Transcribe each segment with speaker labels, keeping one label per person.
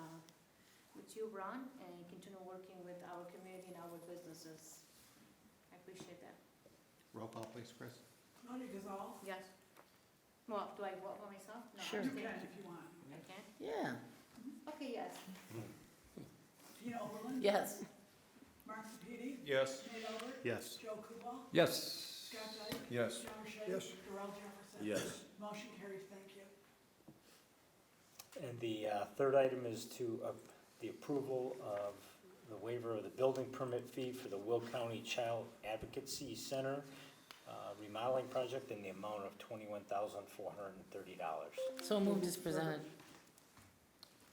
Speaker 1: uh, you run and continue working with our community and our businesses. I appreciate that.
Speaker 2: Roll call, please, Chris.
Speaker 3: Monica Gazal?
Speaker 1: Yes. Well, do I vote for myself? No,
Speaker 4: Sure.
Speaker 3: You
Speaker 1: I'm
Speaker 3: can
Speaker 1: saying-
Speaker 3: if you want.
Speaker 1: I can?
Speaker 4: Yeah.
Speaker 1: Okay, yes.
Speaker 3: Tina Oberlin?
Speaker 4: Yes.
Speaker 3: Mark Sepiti?
Speaker 5: Yes.
Speaker 3: Nate Albert?
Speaker 2: Yes.
Speaker 3: Joe Kubal?
Speaker 5: Yes.
Speaker 3: Scott Dyke?
Speaker 5: Yes.
Speaker 3: John Shea?
Speaker 5: Yes.
Speaker 3: Darrell Jefferson?
Speaker 5: Yes.
Speaker 3: Motion carries, thank you.
Speaker 6: And the uh, third item is to, uh, the approval of the waiver of the building permit fee for the Will County Child Advocacy Center uh, remodeling project in the amount of $21,430.
Speaker 4: So moved as presented.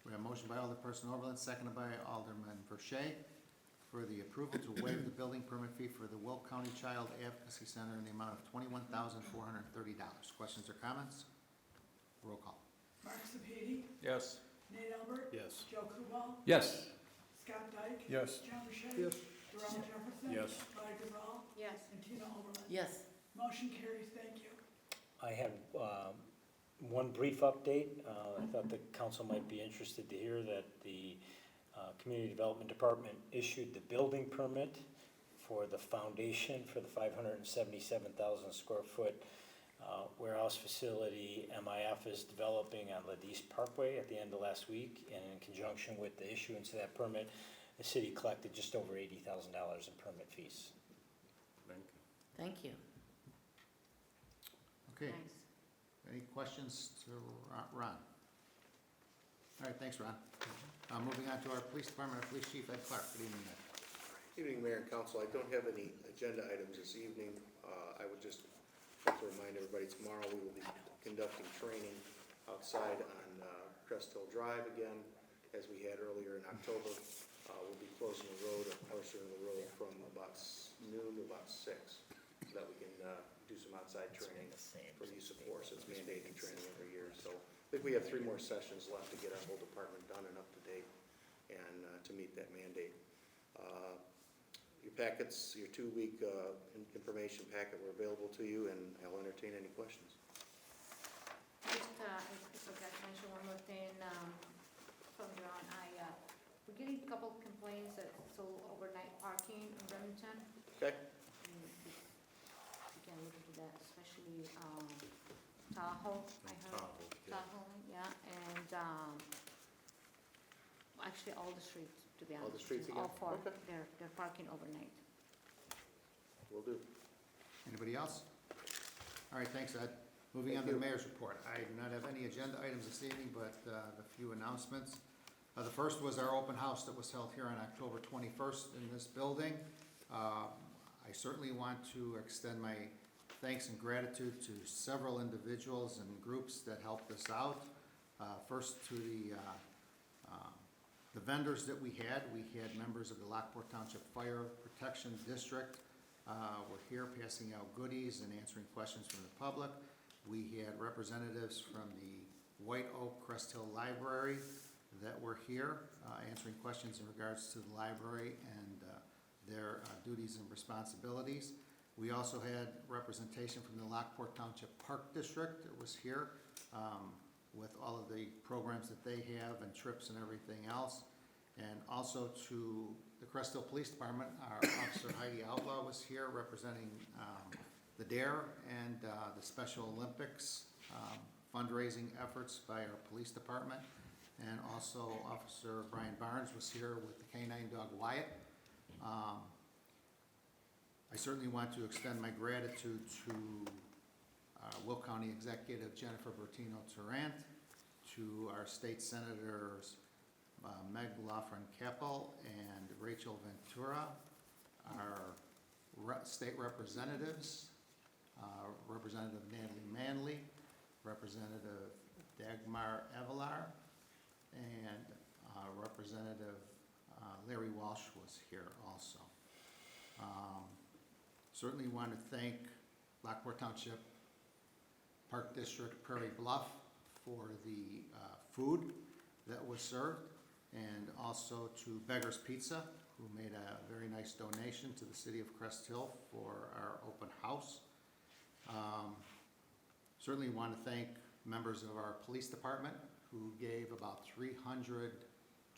Speaker 2: We have a motion by Alderperson Oberlin, seconded by Alderman Verche, for the approval to waive the building permit fee for the Will County Child Advocacy Center in the amount of twenty-one thousand four hundred and thirty dollars. Questions or comments? Roll call.
Speaker 3: Mark Sepiti?
Speaker 5: Yes.
Speaker 3: Nate Albert?
Speaker 5: Yes.
Speaker 3: Joe Kubal?
Speaker 5: Yes.
Speaker 3: Scott Dyke?
Speaker 5: Yes.
Speaker 3: John Shea?
Speaker 5: Yes.
Speaker 3: Darrell Jefferson?
Speaker 5: Yes.
Speaker 3: Monica Gazal?
Speaker 1: Yes.
Speaker 3: And Tina Oberlin?
Speaker 4: Yes.
Speaker 3: Motion carries, thank you.
Speaker 6: I have um, one brief update. Uh, I thought the council might be interested to hear that the uh, Community Development Department issued the building permit for the foundation for the 577,000 square foot uh, warehouse facility MIF is developing on Ladis Parkway at the end of last week. And in conjunction with the issuance of that permit, the city collected just over $80,000 in permit fees.
Speaker 4: Thank you.
Speaker 2: Okay,
Speaker 1: Nice.
Speaker 2: any questions to Ro- Ron? All right, thanks, Ron. Uh, moving on to our police department, our police chief, Ed Clark. Good evening, Ed.
Speaker 7: Evening, Mayor and Council. I don't have any agenda items this evening. Uh, I would just like to remind everybody, tomorrow we will be conducting training outside on uh, Crest Hill Drive again, as we had earlier in October. Uh, We'll be closing the road, a portion of the road from about s- noon to about six, so that we can uh, do some outside training for use of force. It's mandated training every year, so I think we have three more sessions left to get our whole department done and up to date and uh, to meet that mandate. Uh, Your packets, your two-week uh, in- information packet were available to you, and I'll entertain any questions.
Speaker 1: Just, uh, I forgot to mention one more thing, um, from John, I, uh, we're getting a couple complaints that sold overnight parking in Remington.
Speaker 7: Okay?
Speaker 1: And You can look into that, especially, um, Tahoe, I heard.
Speaker 7: Tahoe, yeah.
Speaker 1: Tahoe, yeah, and, um, actually all the streets, to be
Speaker 7: All
Speaker 1: honest.
Speaker 7: the streets
Speaker 1: All
Speaker 7: again?
Speaker 1: four,
Speaker 7: Okay.
Speaker 1: they're, they're parking overnight.
Speaker 7: Will do.
Speaker 2: Anybody else? All right, thanks, Ed. Moving on to the mayor's report. I do not have any agenda items this evening, but uh, a few announcements. Uh, The first was our open house that was held here on October 21st in this building. Uh, I certainly want to extend my thanks and gratitude to several individuals and groups that helped us out. Uh, First to the uh, the vendors that we had, we had members of the Lockport Township Fire Protection District uh, were here passing out goodies and answering questions from the public. We had representatives from the White Oak Crest Hill Library that were here uh, answering questions in regards to the library and uh, their uh, duties and responsibilities. We also had representation from the Lockport Township Park District that was here. um, with all of the programs that they have and trips and everything else. And also to the Crest Hill Police Department, our Officer Heidi Outlaw was here representing um, the DARE and uh, the Special Olympics um, fundraising efforts by our police department. And also Officer Brian Barnes was here with the canine dog Wyatt. Um, I certainly want to extend my gratitude to uh, Will County Executive Jennifer Bertino Tarrant, to our state senators uh, Meg Lofren Keppel and Rachel Ventura, our re- state representatives, uh, Representative Natalie Manley, Representative Dagmar Evelar, and uh, Representative uh, Larry Walsh was here also. Um, Certainly want to thank Lockport Township Park District Prairie Bluff for the uh, food that was served, and also to Beggar's Pizza, who made a very nice donation to the city of Crest Hill for our open house. Um, Certainly want to thank members of our police department who gave about 300